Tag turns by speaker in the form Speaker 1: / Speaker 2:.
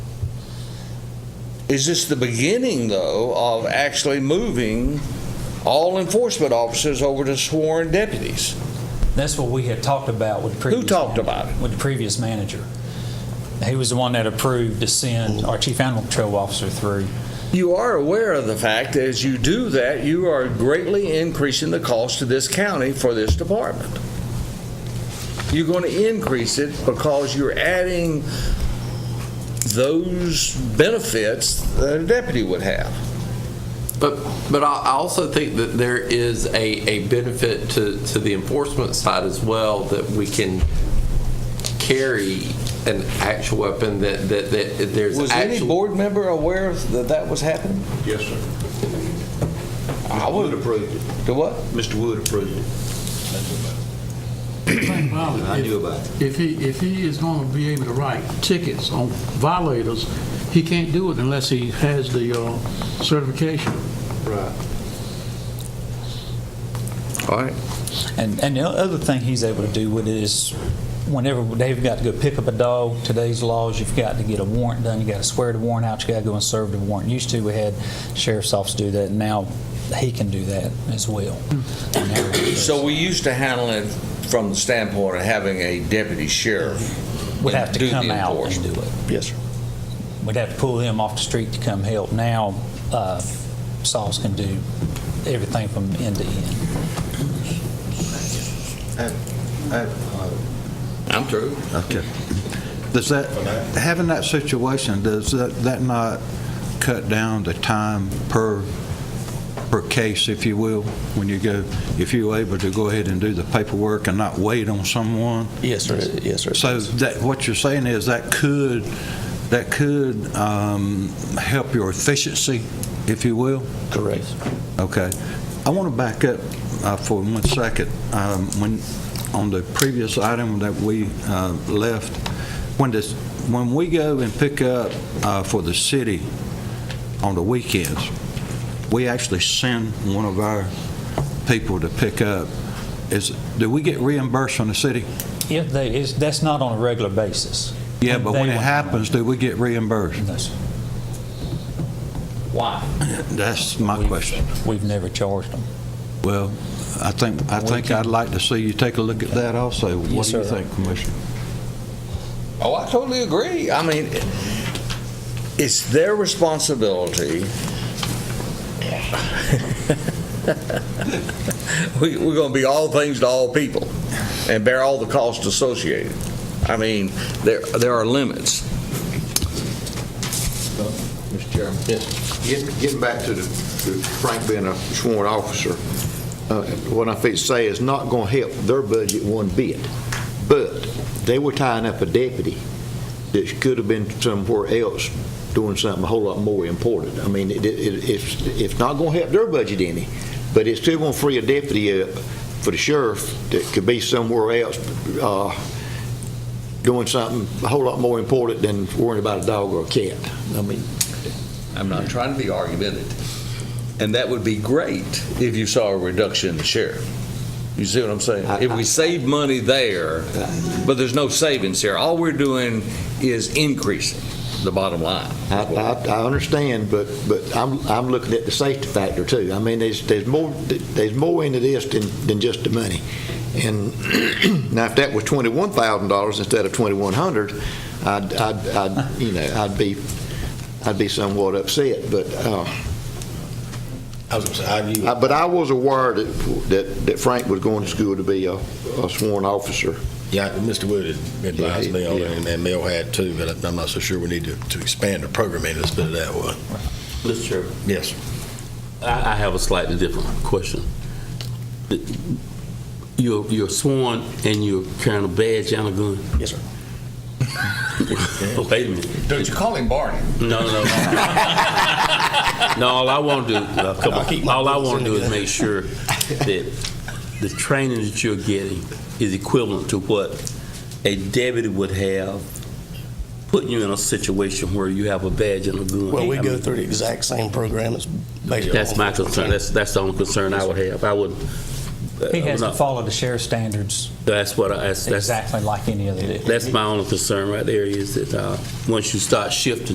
Speaker 1: Is this the beginning, though, of actually moving all enforcement officers over to sworn deputies?
Speaker 2: That's what we had talked about with the previous.
Speaker 1: talked
Speaker 2: man-
Speaker 1: about it?
Speaker 2: With the previous manager. He was the one that approved to send our chief animal control officer through.
Speaker 1: You are aware of the fact that as you do that, you are greatly increasing the cost to this county for this department. You're going to increase it because you're adding those benefits that a deputy would have.
Speaker 3: But, but I I also think that there is a, a benefit to, to the enforcement side as well, that we can carry an actual weapon, that, that, that there's
Speaker 1: Was any
Speaker 3: actual.
Speaker 1: board member aware that that was happening?
Speaker 4: Yes, sir.
Speaker 1: I
Speaker 4: Mr. Wood approved it.
Speaker 1: To what?
Speaker 4: Mr. Wood approved it. I knew about it.
Speaker 5: If he, if he is going to be able to write tickets on violators, he can't do it unless he has the uh, certification.
Speaker 4: Right.
Speaker 3: All right.
Speaker 2: And, and the other thing he's able to do with it is whenever they've got to go pick up a dog, today's laws, you've got to get a warrant done, you got to swear the warrant out, you got to go and serve the warrant. Used to, we had sheriff's office do that, and now he can do that as well.
Speaker 1: So we used to handle it from the standpoint of having a deputy sheriff.
Speaker 2: Would have
Speaker 1: do
Speaker 2: to
Speaker 1: the
Speaker 2: come out and do
Speaker 1: enforcement.
Speaker 2: it.
Speaker 1: Yes, sir.
Speaker 2: We'd have to pull them off the street to come help. Now, uh, Sauls can do everything from end to end.
Speaker 3: I'm through.
Speaker 6: Okay. Does that, having that situation, does that that not cut down the time per, per case, if you will, when you go, if you're able to go ahead and do the paperwork and not wait on someone?
Speaker 7: Yes, sir. Yes, sir.
Speaker 6: So that, what you're saying is that could, that could um, help your efficiency, if you will?
Speaker 7: Correct.
Speaker 6: Okay. I want to back up uh, for one second. Um, When, on the previous item that we uh, left, when this, when we go and pick up uh, for the city on the weekends, we actually send one of our people to pick up. Is, do we get reimbursed from the city?
Speaker 2: If they, is, that's not on a regular basis.
Speaker 6: Yeah, but when
Speaker 2: They
Speaker 6: it
Speaker 2: want-
Speaker 6: happens, do we get reimbursed?
Speaker 2: No, sir. Why?
Speaker 6: That's my question.
Speaker 2: We've never charged them.
Speaker 6: Well, I think, I think I'd like to see you take a look at that also. What do you
Speaker 2: sir.
Speaker 6: think, Commissioner?
Speaker 1: Oh, I totally agree. I mean, it's their responsibility. We, we're gonna be all things to all people and bear all the costs associated. I mean, there, there are limits.
Speaker 4: Mr. Chairman? Yes. Getting, getting back to the, to Frank being a sworn officer, uh, what I think to say is not going to help their budget one bit. But they were tying up a deputy that could have been somewhere else doing something a whole lot more important. I mean, it, it, it's, it's not going to help their budget any, but it's still going to free a deputy up for the sheriff that could be somewhere else, uh, doing something a whole lot more important than worrying about a dog or a cat. I mean,
Speaker 1: I'm not trying to be argumentative. And that would be great if you saw a reduction in the sheriff. You see what I'm saying? If we save money there, but there's no savings here. All we're doing is increasing the bottom line.
Speaker 4: I, I, I understand, but, but I'm, I'm looking at the safety factor too. I mean, there's, there's more, there's more into this than, than just the money. And now if that was twenty-one thousand dollars instead of twenty-one hundred, I'd, I'd, I'd, you know, I'd be, I'd be somewhat upset, but, uh,
Speaker 8: I was gonna say, I knew.
Speaker 4: I- but I was aware that, that- that Frank was going to school to be a a sworn officer.
Speaker 8: Yeah, Mr. Wood had advised me on it, and- and Mel had too, but I'm not so sure we need to, to expand the programming, let's put it that way.
Speaker 3: Mr. Chairman.
Speaker 8: Yes.
Speaker 3: I, I have a slightly different question. You're, you're sworn and you're carrying a badge and a gun?
Speaker 8: Yes, sir.
Speaker 3: Wait a minute.
Speaker 7: Don't you call him Barney?
Speaker 3: No, no, no. No, all I want to do, uh, come on. all I want to do is make sure that the training that you're getting is equivalent to what a deputy would have, putting you in a situation where you have a badge and a gun.
Speaker 7: Well, we
Speaker 3: I
Speaker 7: go
Speaker 3: mean,
Speaker 7: through the exact same program. It's based on.
Speaker 3: That's my concern. That's, that's the only concern I would have. I would.
Speaker 2: He has
Speaker 6: Uh,
Speaker 2: to follow the sheriff's standards
Speaker 3: That's what I, that's, that's,
Speaker 2: exactly like any other deputy.
Speaker 3: that's my only concern right there is that, uh, once you start shifting